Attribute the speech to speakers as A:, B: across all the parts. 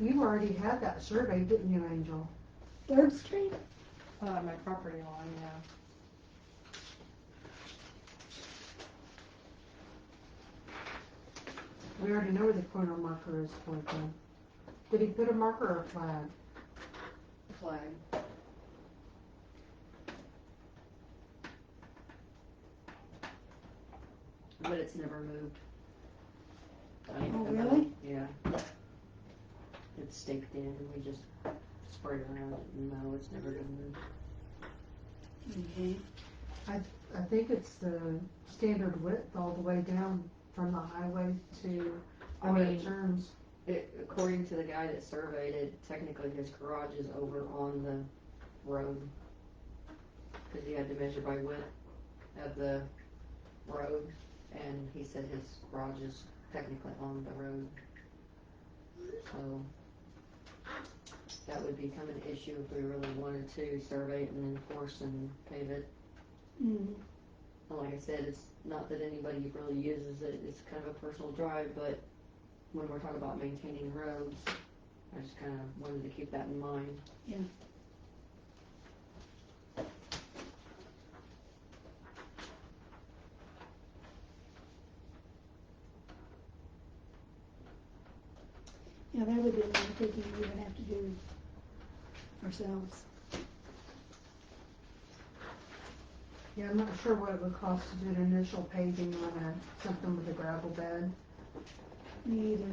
A: You already had that survey, didn't you, Angel?
B: Third Street?
C: Uh, my property line, yeah.
A: We already know where the corner marker is for them. Did he put a marker or a flag?
C: Flag.
D: but it's never moved. I mean,
B: Oh,
D: I don't-
B: really?
D: Yeah. It's staked in, and we just spray it around, it, and no, it's never been moved.
A: I think it's the standard width all the way down from the highway to,
D: I
A: I mean,
D: mean-
A: it turns.
D: It, according to the guy that surveyed it, technically his garage is over on the road. Cause he had to measure by width of the road, and he said his garage is technically on the road. So, that would become an issue if we really wanted to survey it and enforce and pave it.
B: Mm.
D: And like I said, it's not that anybody really uses it, it's kind of a personal drive, but when we're talking about maintaining roads, I just kind of wanted to keep that in mind.
B: Yeah. Yeah, that would be another thinking we would have to do ourselves.
A: Yeah, I'm not sure what it would cost to do an initial paving on a, something with a gravel bed.
B: Me either.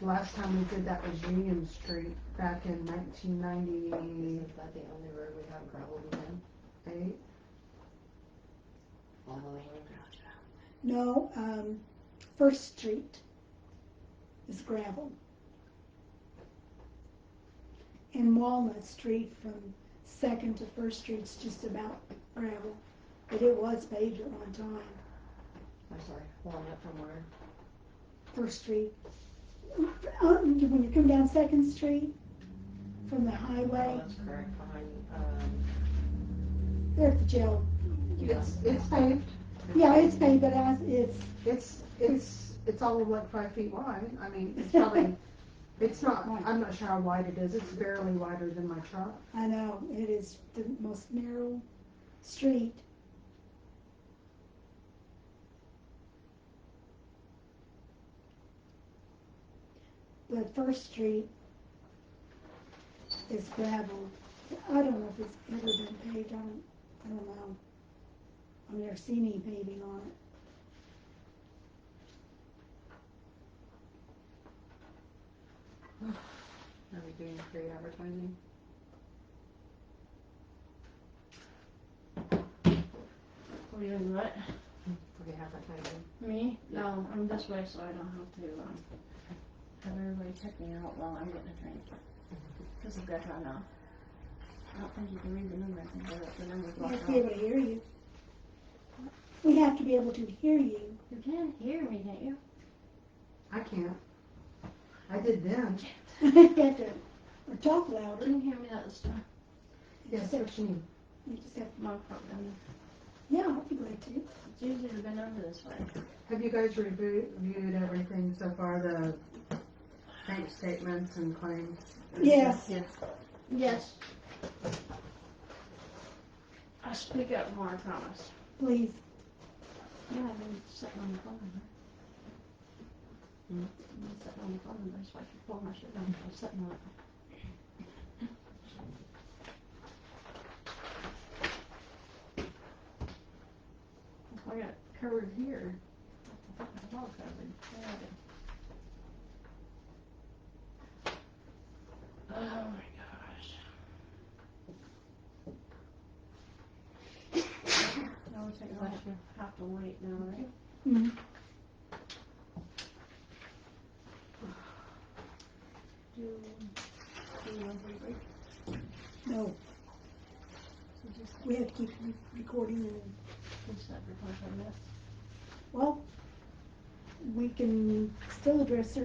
A: Last time we did that was Union Street back in nineteen ninety-eight.
D: Isn't that the only road we have gravel in? On the road?
B: No, um, First Street is gravel. And Walnut Street from Second to First Street's just about gravel, but it was paved at one time.
D: I'm sorry, Walnut from where?
B: First Street. Um, when you come down Second Street from the highway,
D: Oh, That's correct, behind, um,
B: there at the jail.
A: It's, it's paved,
B: Yeah, it's paved, but I, it's,
A: it's, it's, it's all of like five feet wide, I mean, it's probably, it's not, I'm not sure how wide it is, it's barely wider than my truck.
B: I know, it is the most narrow street. But First Street is gravel. I don't know if it's ever been paved, I don't, I don't know. I've never seen any paving on it.
D: are we doing free advertising?
E: Are you doing what?
D: Free advertising.
E: Me? No, I'm this way so I don't have to um, have everybody check me out while I'm getting a drink. Because I've got to now. I don't think you can read the number. I think I let the number
B: We
E: block
B: have to be
E: out.
B: able to hear you. We have to be able to hear you.
E: You can hear me, can't you?
A: I can't. I did then.
B: We have to, or talk
E: You
B: louder.
E: can hear me that time.
B: You
A: Yes,
B: just have-
A: what you mean?
B: You just have,
E: My problem.
B: yeah, I'd be glad to.
E: It's usually been over this way.
A: Have you guys reviewed, reviewed everything so far, the bank statements and claims?
B: Yes.
D: Yes.
E: Yes. I speak up more, I promise.
B: Please.
E: Yeah, I've been sitting on the phone.
D: Hmm?
E: I've been sitting on the phone, that's why I can pull my shit down. I'm sitting on it. That's why I got covered here. I thought I was all covered. Yeah, I did. Oh my gosh. I would think I should have to wait now, right? Do, do you want to break?
B: No,
E: Or just
B: we have to keep recording and,
E: finish that report on this?
B: well, we can still address certain